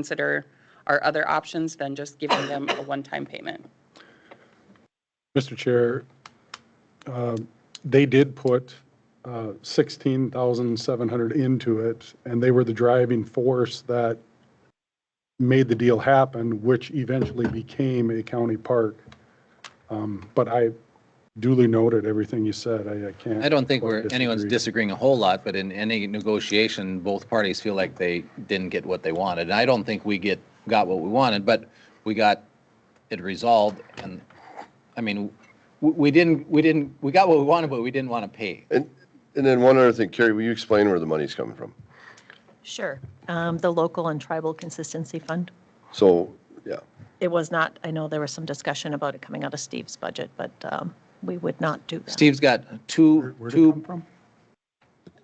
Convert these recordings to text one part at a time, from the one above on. consider our other options than just giving them a one-time payment. Mr. Chair, um, they did put uh, 16,700 into it, and they were the driving force that made the deal happen, which eventually became a county park. Um, But I duly noted everything you said. I I can't. I don't think quite we're, anyone's disagree. disagreeing a whole lot, but in any negotiation, both parties feel like they didn't get what they wanted. And I don't think we get, got what we wanted, but we got it resolved and, I mean, we, we didn't, we didn't, we got what we wanted, but we didn't want to pay. And, and then one other thing, Carrie, will you explain where the money's coming from? Sure. Um, The Local and Tribal Consistency Fund. So, yeah, It was not, I know there was some discussion about it coming out of Steve's budget, but um, we would not do that. Steve's got two, Where'd it come two, from?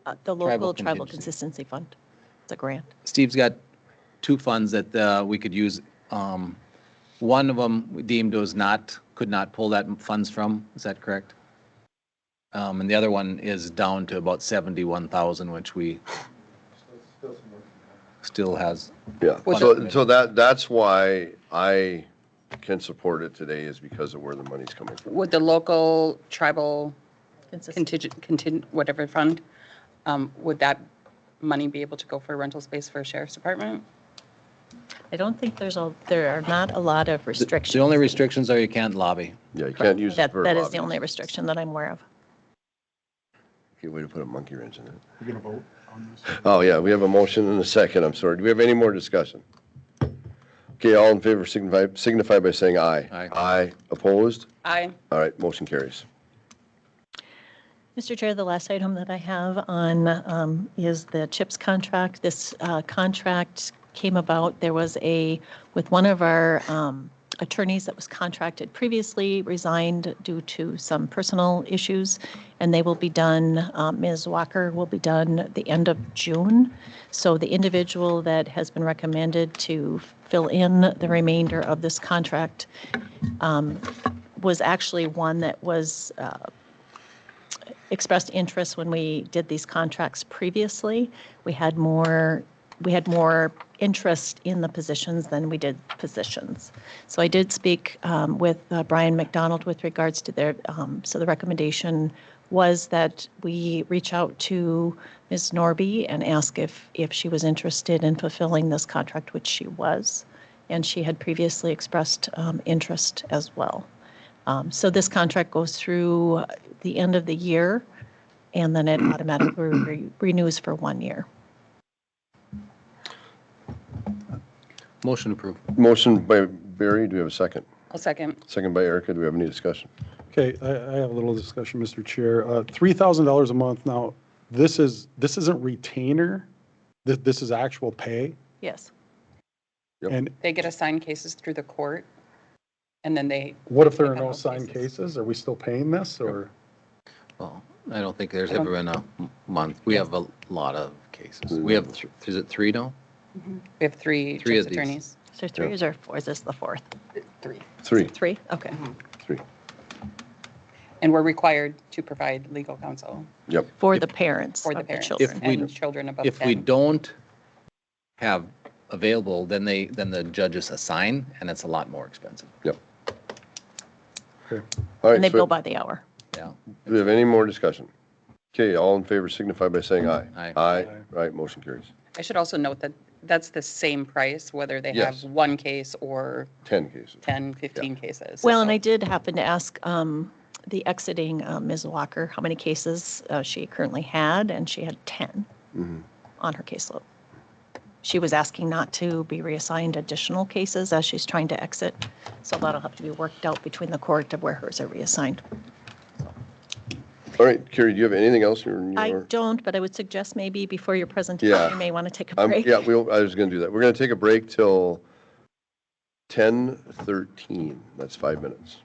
Uh, The Local Tribal Contingency. Consistency Fund. It's a grant. Steve's got two funds that, uh, we could use. Um, one of them we deemed was not, could not pull that funds from, is that correct? Um, and the other one is down to about seventy-one thousand, which we still has, yeah. What's So, that? so that, that's why I can support it today is because of where the money's coming from. Would the local tribal Consistent. contingent, contingent, whatever fund, um, would that money be able to go for rental space for a sheriff's department? I don't think there's a, there are not a lot of restrictions. the only restrictions are you can't lobby. Yeah, you can't use it That, for that is the lobbying. only restriction that I'm aware of. Okay, way to put a monkey wrench in it. We're going to vote on this? Oh, yeah, we have a motion and a second, I'm sorry. Do we have any more discussion? Okay, all in favor signify, signify by saying aye. Aye. Aye, opposed? I, All right, motion carries. Mr. Chair, the last item that I have on um, is the CHIPS contract. This uh, contract came about, there was a, with one of our um, attorneys that was contracted previously, resigned due to some personal issues, and they will be done, um, Ms. Walker will be done at the end of June. So the individual that has been recommended to fill in the remainder of this contract um, was actually one that was uh, expressed interest when we did these contracts previously. We had more, we had more interest in the positions than we did positions. So I did speak um, with uh, Brian McDonald with regards to their, um, so the recommendation was that we reach out to Ms. Norby and ask if, if she was interested in fulfilling this contract, which she was. And she had previously expressed um, interest as well. Um, So this contract goes through the end of the year, and then it automatically re- renews for one year. Motion approved. Motion by Barry, do we have a second? I'll second. Second by Erica, do we have any discussion? Okay, I, I have a little discussion, Mr. Chair. Uh, $3,000 a month now, this is, this isn't retainer, this, this is actual pay. Yes. Yep. And They get assigned cases through the court, and then they, what if there are Pick up no those signed cases. cases? Are we still paying this or? Well, I don't think there's ever been a month. We have a lot of cases. We have, th- is it three now? we have three Three of chief's these. attorneys. So three is or four, is this the fourth? Three. Mm-hmm. Three, Three? Okay. three, And we're required to provide legal counsel yep. For the parents for the of the parents children. we- and children above 10. If we don't have available, then they, then the judges assign, and it's a lot more expensive. Okay. All And they right, bill so by the hour. Yeah. do we have any more discussion? Okay, all in favor signify by saying aye. Aye. Aye, right, motion carries. I should also note that that's the same price, whether they have Yes. one case or 10 cases. 10, 15 cases. Well, and So I did happen to ask um, the exiting uh, Ms. Walker how many cases uh, she currently had, and she had 10 Mm-hmm. on her caseload. She was asking not to be reassigned additional cases as she's trying to exit, so that'll have to be worked out between the court of where hers are reassigned. All right, Carrie, do you have anything else in your? I don't, but I would suggest maybe before your presentation, Yeah. you may want to take a Um, break. Yeah, we, I was going to do that. We're going to take a break till 10:13. That's five minutes.